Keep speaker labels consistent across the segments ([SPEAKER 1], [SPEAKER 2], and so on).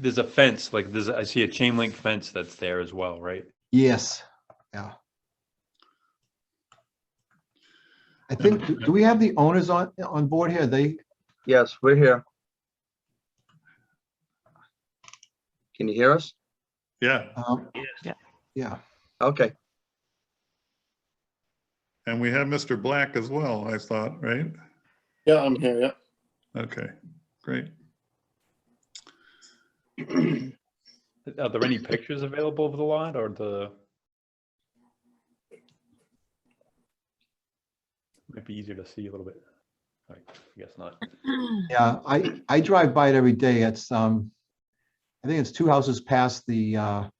[SPEAKER 1] there's a fence, like there's, I see a chain link fence that's there as well, right?
[SPEAKER 2] Yes, yeah. I think,
[SPEAKER 1] Uh,
[SPEAKER 2] do- do we have the owners on, on board here? They,
[SPEAKER 3] Yes, we're here. Can you hear us?
[SPEAKER 4] Yeah,
[SPEAKER 2] um,
[SPEAKER 5] Yeah.
[SPEAKER 2] yeah,
[SPEAKER 3] Okay,
[SPEAKER 4] and we have Mr. Black as well, I thought, right?
[SPEAKER 6] Yeah, I'm here, yeah.
[SPEAKER 4] Okay, great.
[SPEAKER 1] Are there any pictures available of the lot or the? Might be easier to see a little bit. I guess not.
[SPEAKER 2] yeah. I, I drive by it every day. It's, um, I think it's two houses past the, uh,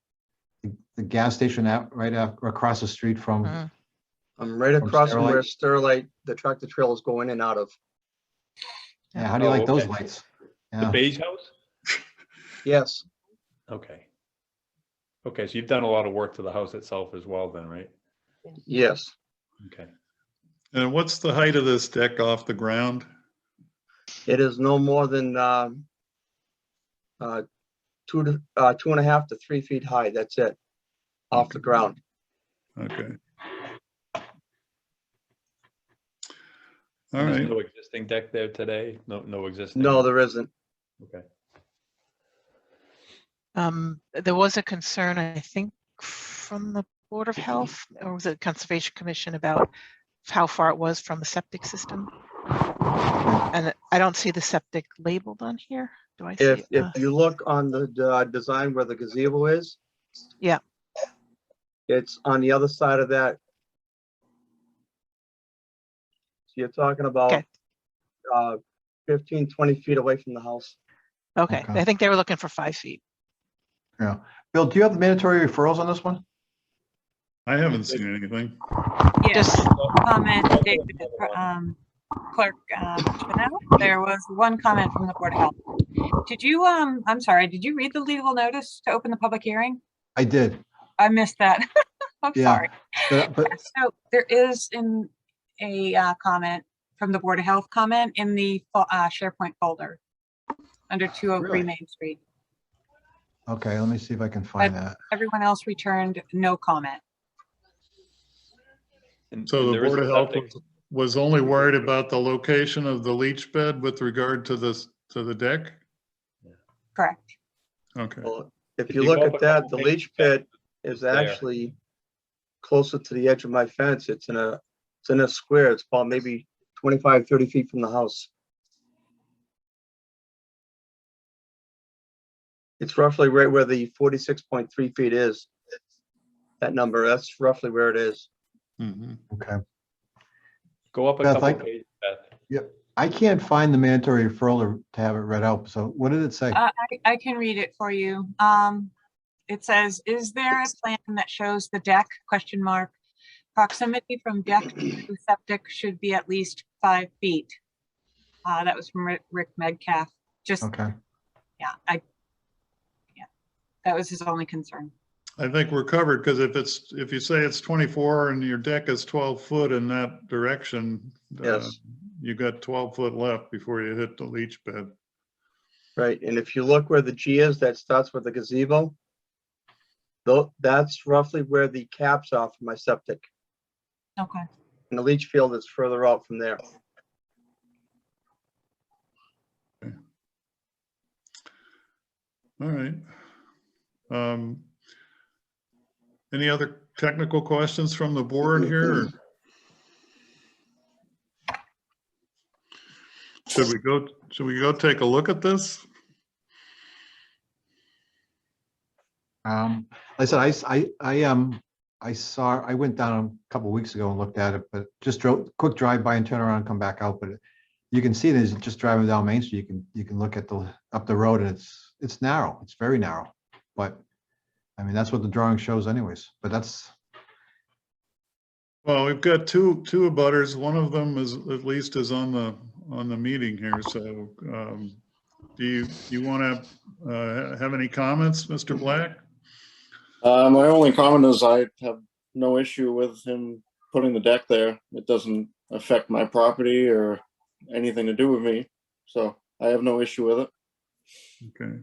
[SPEAKER 2] the- the gas station out, right af- across the street from,
[SPEAKER 5] Mhm.
[SPEAKER 3] I'm right
[SPEAKER 2] From
[SPEAKER 3] across from where
[SPEAKER 2] Sterlite.
[SPEAKER 3] Sterlite, the tractor trailers go in and out of.
[SPEAKER 2] yeah, how do you
[SPEAKER 1] Oh,
[SPEAKER 2] like those
[SPEAKER 1] okay.
[SPEAKER 2] lights?
[SPEAKER 1] The
[SPEAKER 2] Yeah,
[SPEAKER 1] beige house?
[SPEAKER 3] Yes,
[SPEAKER 1] Okay. Okay, so you've done a lot of work to the house itself as well then, right?
[SPEAKER 3] yes.
[SPEAKER 1] Okay.
[SPEAKER 4] And what's the height of this deck off the ground?
[SPEAKER 3] It is no more than, um, uh, two to, uh, two and a half to three feet high, that's it, off the ground.
[SPEAKER 4] Okay. All
[SPEAKER 1] And There's
[SPEAKER 4] right,
[SPEAKER 1] no existing deck there today? No, no existing?
[SPEAKER 3] No, there isn't.
[SPEAKER 1] Okay.
[SPEAKER 5] Um, there was a concern, I think, from the Board of Health, or was it Conservation Commission about how far it was from the septic system? And I don't see the septic labeled on here. Do I see?
[SPEAKER 3] If,
[SPEAKER 5] it?
[SPEAKER 3] if
[SPEAKER 5] Uh,
[SPEAKER 3] you look on the, uh, design where the gazebo is.
[SPEAKER 5] Yeah.
[SPEAKER 3] It's on the other side of that. So you're talking about,
[SPEAKER 5] Okay.
[SPEAKER 3] uh, 15, 20 feet away from the house.
[SPEAKER 5] Okay,
[SPEAKER 2] Okay.
[SPEAKER 5] I think they were looking for five feet.
[SPEAKER 2] yeah. Bill, do you have the mandatory referrals on this one?
[SPEAKER 4] I haven't seen anything.
[SPEAKER 5] Just,
[SPEAKER 7] Yes, comment,
[SPEAKER 1] Okay.
[SPEAKER 7] David, um, Clerk, um, Bonello. there was one comment from the Board of Health. Did you, um, I'm sorry, did you read the legal notice to open the public hearing?
[SPEAKER 2] I did,
[SPEAKER 7] I missed that. I'm
[SPEAKER 2] Yeah.
[SPEAKER 7] sorry.
[SPEAKER 2] but, but,
[SPEAKER 7] So there is in a uh, comment from the Board of Health comment in the fo- uh, SharePoint folder under 203
[SPEAKER 2] Really?
[SPEAKER 7] Main Street.
[SPEAKER 2] okay, let me see if I can find that.
[SPEAKER 7] Everyone else returned no comment.
[SPEAKER 1] And-
[SPEAKER 4] So
[SPEAKER 1] and
[SPEAKER 4] the
[SPEAKER 1] there is
[SPEAKER 4] Board
[SPEAKER 1] a
[SPEAKER 4] of Health
[SPEAKER 1] septic-
[SPEAKER 4] was- was only worried about the location of the leach bed with regard to this, to the deck?
[SPEAKER 7] Correct.
[SPEAKER 4] Okay,
[SPEAKER 3] Well, If
[SPEAKER 1] If
[SPEAKER 3] you
[SPEAKER 1] you
[SPEAKER 3] look
[SPEAKER 1] go
[SPEAKER 3] at
[SPEAKER 1] up a
[SPEAKER 3] that,
[SPEAKER 1] couple
[SPEAKER 3] the
[SPEAKER 1] pages
[SPEAKER 3] leach pit is
[SPEAKER 1] there.
[SPEAKER 3] actually closer to the edge of my fence. It's in a, it's in a square. It's about maybe 25, 30 feet from the house. It's roughly right where the 46.3 feet is. That number, that's roughly where it is.
[SPEAKER 4] Mhm.
[SPEAKER 2] Okay.
[SPEAKER 1] Go up a
[SPEAKER 2] Beth,
[SPEAKER 1] couple
[SPEAKER 2] I-
[SPEAKER 1] pages, Beth.
[SPEAKER 2] I can't find the mandatory referral to- to have it read out, so what did it say?
[SPEAKER 7] Uh, I, I can read it for you. Um, it says, is there a plan that shows the deck, question mark? Proximity from deck to septic should be at least five feet. Uh, that was from Ri- Rick Medcalf. Just,
[SPEAKER 2] Okay,
[SPEAKER 7] yeah, I, yeah, that was his only concern.
[SPEAKER 4] I think we're covered, because if it's, if you say it's 24 and your deck is 12 foot in that direction, uh,
[SPEAKER 3] Yes.
[SPEAKER 4] you got 12 foot left before you hit the leach bed.
[SPEAKER 3] Right, and if you look where the G is, that starts with the gazebo. Though, that's roughly where the caps are for my septic,
[SPEAKER 7] Okay.
[SPEAKER 3] and the leach field is further out from there.
[SPEAKER 4] All right. Um, Any other technical questions from the board here? or- Should we go, should we go take a look at this?
[SPEAKER 2] um, like I said, I, s- I, I, um, I saw, I went down a couple weeks ago and looked at it, but just drove, quick drive by and turn around and come back out, but it- you can see there's just driving down Main Street, you can, you can look at the, up the road and it's, it's narrow, it's very narrow, but I mean, that's what the drawing shows anyways, but that's,
[SPEAKER 4] Well, we've got two, two abutters. One of them is, at least is on the, on the meeting here, so um, do you, you want to have any comments, Mr. Black?
[SPEAKER 6] Uh, my only comment is I have no issue with him putting the deck there. It doesn't affect my property or anything to do with me, so I have no issue with it.
[SPEAKER 4] Okay.